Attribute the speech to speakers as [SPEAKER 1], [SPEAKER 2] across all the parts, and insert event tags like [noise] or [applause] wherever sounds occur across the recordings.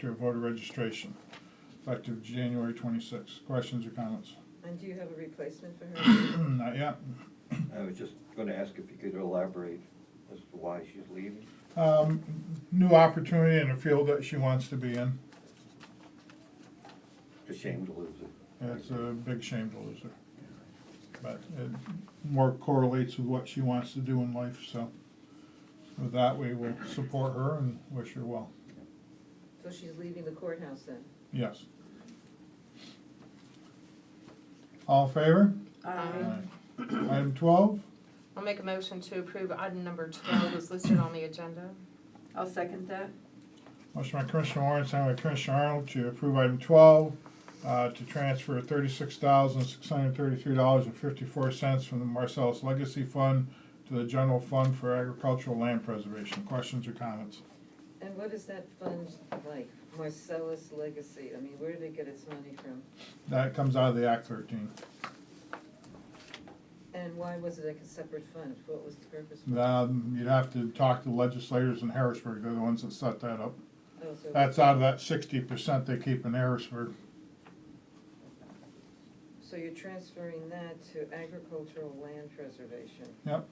[SPEAKER 1] to voter registration, effective January twenty-sixth. Questions or comments? [clears throat]
[SPEAKER 2] And do you have a replacement for her? [coughs]
[SPEAKER 1] Not yet.
[SPEAKER 3] I was just gonna ask if you could elaborate as to why she's leaving.
[SPEAKER 1] Um, New opportunity in a field that she wants to be in.
[SPEAKER 3] It's a shame to lose it.
[SPEAKER 1] It's a big shame to lose her. But it more correlates with what she wants to do in life, so with that, we will support her and wish her well.
[SPEAKER 2] So she's leaving the courthouse then?
[SPEAKER 1] Yes. All in favor?
[SPEAKER 4] Aye.
[SPEAKER 1] Item twelve,
[SPEAKER 5] I'll make a motion to approve item number twelve is listed on the agenda.
[SPEAKER 4] I'll second that.
[SPEAKER 1] motion by Commissioner Warren, signed by Commissioner Arnold to approve item twelve, uh, to transfer thirty-six thousand, six hundred and thirty-three dollars and fifty-four cents from the Marcellus Legacy Fund to the General Fund for Agricultural Land Preservation. Questions or comments?
[SPEAKER 2] And what is that fund like? Marcellus Legacy, I mean, where did it get its money from?
[SPEAKER 1] That comes out of the Act thirteen.
[SPEAKER 2] And why was it like a separate fund? What was the purpose? for it?
[SPEAKER 1] Um, you'd have to talk to legislators in Harrisburg, they're the ones that set that up.
[SPEAKER 2] Oh, so-
[SPEAKER 1] That's out of that sixty percent they keep in Harrisburg.
[SPEAKER 2] So you're transferring that to agricultural land preservation,
[SPEAKER 1] Yep,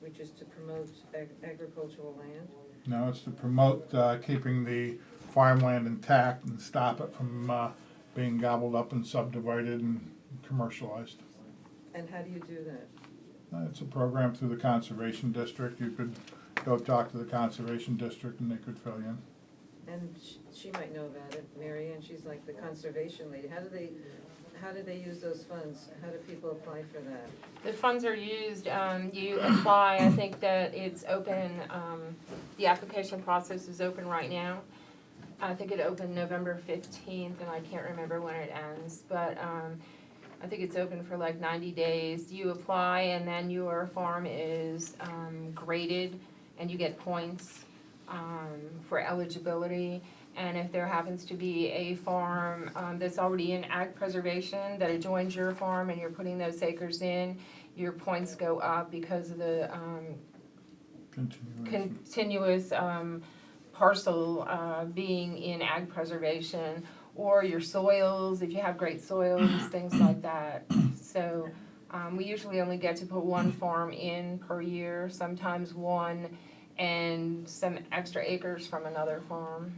[SPEAKER 2] which is to promote ag- agricultural land?
[SPEAKER 1] no, it's to promote, uh, keeping the farmland intact and stop it from, uh, being gobbled up and subdivided and commercialized.
[SPEAKER 2] And how do you do that?
[SPEAKER 1] Uh, It's a program through the Conservation District, you could go talk to the Conservation District and they could fill you in.
[SPEAKER 2] And sh- she might know about it, Mary Ann, she's like the conservation lady. How do they, how do they use those funds? How do people apply for that?
[SPEAKER 5] The funds are used, um, you apply, I think that it's open, um, the application process is open right now. I think it opened November fifteenth, and I can't remember when it ends, but, um, I think it's open for like ninety days. You apply, and then your farm is, um, graded, and you get points, um, for eligibility. And if there happens to be a farm, um, that's already in ag preservation, that adjoins your farm, and you're putting those acres in, your points go up because of the, um,
[SPEAKER 1] Continuation.
[SPEAKER 5] continuous um, parcel uh, being in ag preservation, or your soils, if you have great soils, things like that. So um, we usually only get to put one farm in per year, sometimes one, and some extra acres from another farm.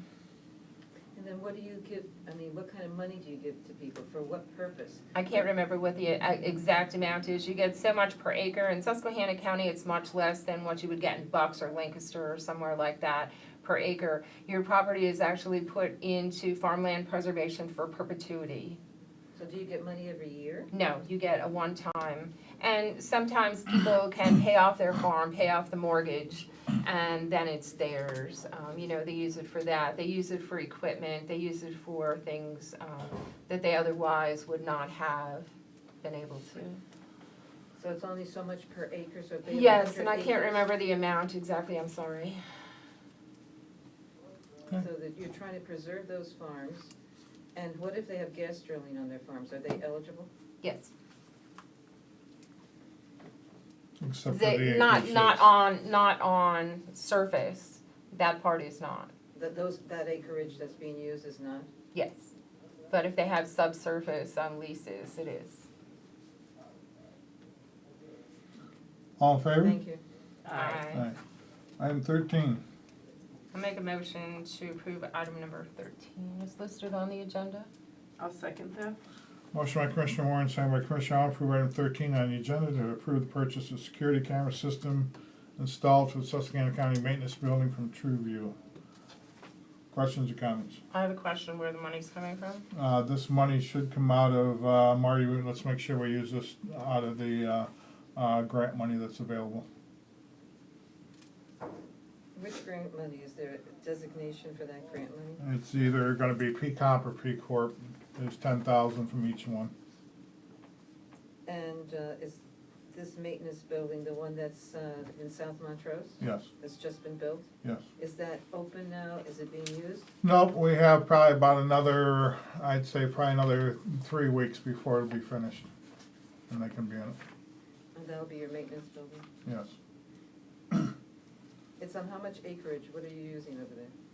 [SPEAKER 2] And then what do you give, I mean, what kind of money do you give to people? For what purpose?
[SPEAKER 5] I can't remember what the uh, exact amount is. You get so much per acre. In Susquehanna County, it's much less than what you would get in Bucks or Lancaster or somewhere like that per acre. Your property is actually put into farmland preservation for perpetuity.
[SPEAKER 2] So do you get money every year?
[SPEAKER 5] No, you get a one-time. And sometimes people can pay off their farm, pay off the mortgage, and then it's theirs. Um, you know, they use it for that. They use it for equipment. They use it for things um, that they otherwise would not have been able to.
[SPEAKER 2] So it's only so much per acre, so if they have
[SPEAKER 5] Yes, and
[SPEAKER 2] 100
[SPEAKER 5] I can't
[SPEAKER 2] acres,
[SPEAKER 5] remember the amount exactly, I'm sorry.
[SPEAKER 2] So that you're trying to preserve those farms, and what if they have gas drilling on their farms? Are they eligible?
[SPEAKER 5] Yes.
[SPEAKER 1] Except for
[SPEAKER 5] They,
[SPEAKER 1] the
[SPEAKER 5] not,
[SPEAKER 1] acreage
[SPEAKER 5] not
[SPEAKER 1] that's-
[SPEAKER 5] on, not on surface, that part is not,
[SPEAKER 2] That those, that acreage that's being used is not?
[SPEAKER 5] yes. But if they have subsurface on leases, it is.
[SPEAKER 1] All in favor?
[SPEAKER 2] Thank you.
[SPEAKER 1] Aye. Item thirteen,
[SPEAKER 5] I'll make a motion to approve item number thirteen is listed on the agenda.
[SPEAKER 4] I'll second that.
[SPEAKER 1] Motion by Commissioner Warren, signed by Commissioner Arnold, approve item thirteen on the agenda to approve the purchase of security camera system installed for the Susquehanna County Maintenance Building from TrueView. Questions or comments?
[SPEAKER 5] I have a question where the money's coming from.
[SPEAKER 1] Uh, this money should come out of, uh, Marty, we- let's make sure we use this out of the, uh, uh, grant money that's available.
[SPEAKER 2] Which grant money? Is there a designation for that grant money?
[SPEAKER 1] It's either gonna be P comp or P corp, there's ten thousand from each one.
[SPEAKER 2] And uh, is this maintenance building, the one that's uh, in South Montrose,
[SPEAKER 1] Yes,
[SPEAKER 2] that's just been built?
[SPEAKER 1] yes.
[SPEAKER 2] Is that open now? Is it being used?
[SPEAKER 1] Nope, we have probably about another, I'd say probably another three weeks before it'll be finished. And they can be in it,
[SPEAKER 2] And that'll be your maintenance building?
[SPEAKER 1] yes.
[SPEAKER 2] It's on how much acreage? What are you using over there?